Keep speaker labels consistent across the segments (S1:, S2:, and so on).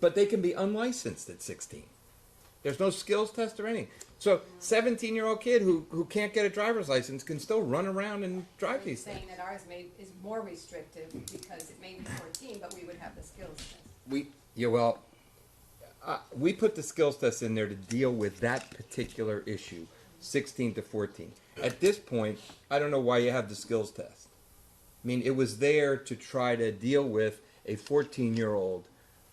S1: but they can be unlicensed at 16. There's no skills test or anything. So 17 year old kid who, who can't get a driver's license can still run around and drive
S2: You're
S1: these things.
S2: saying that ours may, is more restrictive because it may be fourteen, but we would have the skills test.
S1: We yeah well, uh, we put the skills test in there to deal with that particular issue, 16 to 14. At this point, I don't know why you have the skills test. I mean, it was there to try to deal with a 14 year old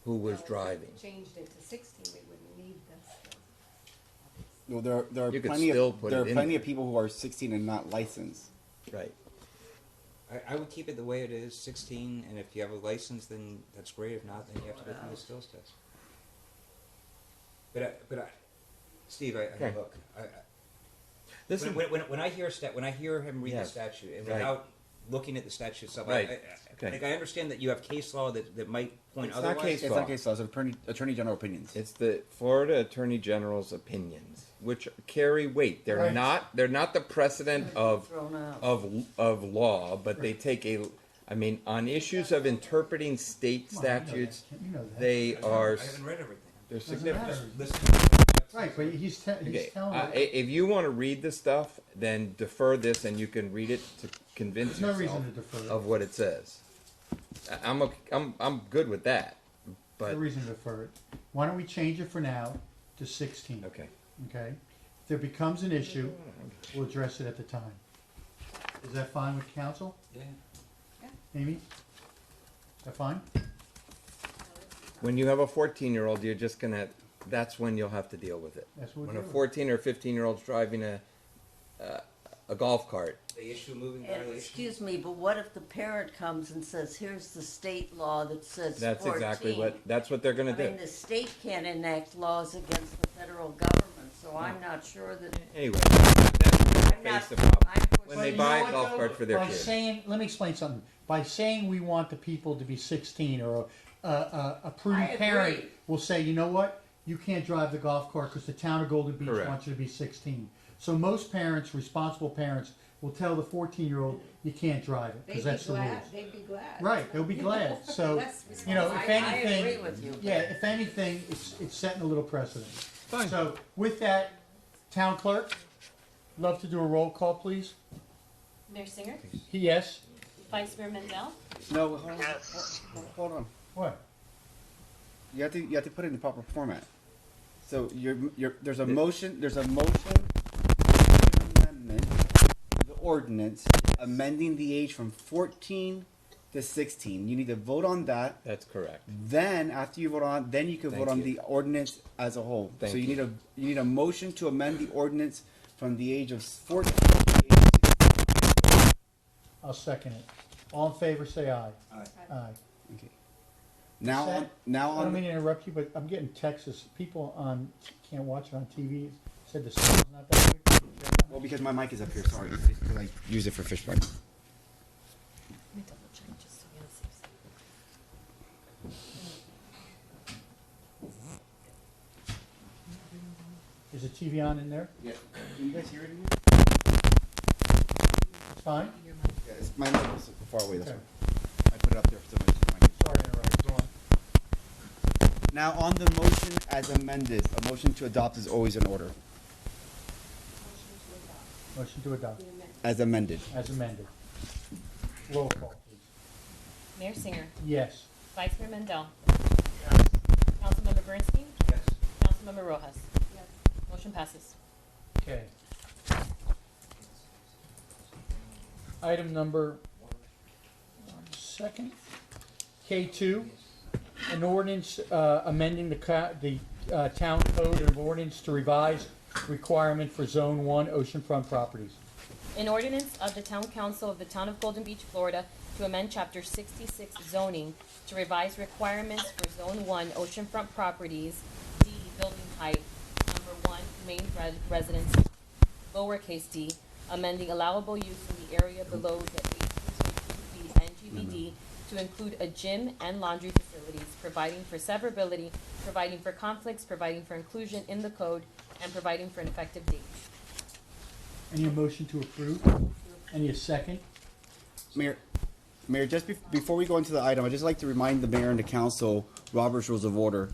S1: who
S2: Now,
S1: was
S2: if we
S1: driving.
S2: Changed it to sixteen, we wouldn't need the skills.
S3: Well, there are, there are
S1: You could
S3: plenty
S1: still
S3: of
S1: put
S3: there
S1: it
S3: are
S1: in
S3: plenty
S1: there.
S3: of people who are 16 and not licensed.
S1: Right.
S4: I, I would keep it the way it is, sixteen, and if you have a license, then that's great. If not, then you have to go through the skills test. But I, but I, Steve, I, I
S1: Okay.
S4: look. I, I,
S1: This
S4: when,
S1: is
S4: when, when, when I hear stat, when I hear him read
S1: Yes.
S4: the statute, and
S1: Right.
S4: without looking at the statute itself,
S1: Right.
S4: I, I,
S1: Okay.
S4: I, like I understand that you have case law that, that might point
S1: It's not
S4: otherwise.
S1: case
S3: It's
S1: law.
S3: not case law. It's attorney, attorney general opinions.
S1: It's the Florida Attorney General's opinions, which carry weight. They're
S5: Right.
S1: not they're not the precedent of
S5: Thrown out.
S1: of of law, but they take a. I mean, on issues of interpreting state
S5: Well, I know that.
S1: statutes,
S5: You know that.
S1: they
S4: I haven't-
S1: are
S4: I haven't read everything.
S1: they're
S5: Doesn't
S1: significant.
S5: matter.
S4: Listen.
S5: Right, but he's, te-
S1: Okay,
S5: he's telling
S1: uh, i-
S5: it.
S1: if you want to read the stuff, then defer this, and you can read it to convince
S5: There's no
S1: yourself
S5: reason to defer.
S1: of what it says. I- I'm okay, I'm I'm good with that,
S5: There's
S1: but
S5: No reason to defer it. Why don't we change it for now to sixteen?
S1: okay.
S5: Okay? If there becomes an issue, we'll address it at the time. Is that fine with council?
S4: Yeah.
S5: Amy? Is that fine?
S1: When you have a 14 year old, you're just gonna. That's when you'll have to deal with it.
S5: That's what
S1: when
S5: we're
S1: a
S5: doing.
S1: 14 or 15 year old's driving a uh, a golf cart.
S4: They issue moving
S6: And
S4: violations.
S6: excuse me, but what if the parent comes and says, here's the state law that says
S1: That's exactly what.
S6: 14."
S1: That's what they're gonna
S6: I
S1: do.
S6: mean, the state can't enact laws against the federal government, so I'm not sure that,
S1: Anyway, that's
S6: I'm
S1: face
S6: not,
S1: the problem.
S6: I'm
S1: When
S5: But
S1: they
S5: you
S6: pushing,
S1: buy
S5: know
S1: a
S5: what,
S1: golf
S5: though?
S1: cart for their
S5: By
S1: kid.
S5: saying, let me explain something. By saying we want the people to be 16 or a, a, a, a prudent
S6: I
S5: parent
S6: agree.
S5: will say, you know what? You can't drive the golf cart because the town of Golden Beach
S1: Correct.
S5: wants you to be 16. So most parents, responsible parents, will tell the 14 year old you can't drive it because
S2: They'd
S5: that's
S2: be
S5: the rules.
S2: glad, they'd be glad.
S5: Right, they'll be glad. So,
S2: That's
S5: you know, if
S2: responsible.
S6: I
S5: anything,
S6: agree with you.
S5: yeah, if anything, it's it's setting a little precedent. So, with that, town clerk, love to do a roll call, please.
S7: Mayor Singer,
S5: Yes.
S7: Vice Mayor Mendel,
S3: No, hold on, hold, hold on.
S5: What?
S3: You have to you have to put it in the proper format. So you're, you're, there's a
S1: Yeah.
S3: motion. There's a motion to amendment to the ordinance amending the age from 14 to 16. You need to vote on that.
S1: That's correct.
S3: Then after you vote on, then you can
S1: Thank
S3: vote on
S1: you.
S3: the ordinance as a whole.
S1: Thank
S3: so you,
S1: you.
S3: need a you need a motion to amend the ordinance from the age of fourteen. to the age of 16.
S5: I'll second it. All in favor, say aye.
S4: Aye.
S5: Aye.
S3: Okay. Now
S5: Set.
S3: on now
S5: I don't
S3: on
S5: mean to interrupt you, but I'm getting Texas. People on can't watch it on TV. Said the sound's not that good.
S3: well because my mic is up here. Sorry, because I use it for fish pipe.
S7: Let me double check just so we're on the safe side.
S5: Is the TV on in there?
S3: Yeah. Can you guys hear it? in here?
S5: It's fine.
S3: Yeah, it's, my mic is far away. That's
S5: Okay.
S3: why I put it up there for so much.
S5: Sorry, to interrupt. Go on.
S3: Now on the motion as amended, a motion to adopt is always in order
S5: Motion to adopt
S3: as amended.
S5: as amended. Roll call, please.
S7: Mayor Singer,
S5: Yes.
S7: Vice Mayor Mendel. Councilmember Bernstein,
S4: Yes.
S7: Councilmember Rojas.
S2: Yes.
S7: Motion passes.
S5: Okay. Item number one second, K two, an ordinance uh, amending the ca- the uh, town code of ordinance to revise requirement for zone one oceanfront properties.
S7: An ordinance of the Town Council of the Town of Golden Beach, Florida, to amend Chapter sixty-six zoning to revise requirements for Zone One oceanfront properties, D building height, number one, main res- residence, lowercase d, amending allowable use in the area below the eight point two feet NGBD to include a gym and laundry facilities, providing for severability, providing for conflicts, providing for inclusion in the code, and providing for an effective date.
S5: Any motion to approve? Any a second?
S3: Mayor, Mayor, just bef- before we go into the item, I'd just like to remind the mayor and the council Robert's Rules of Order.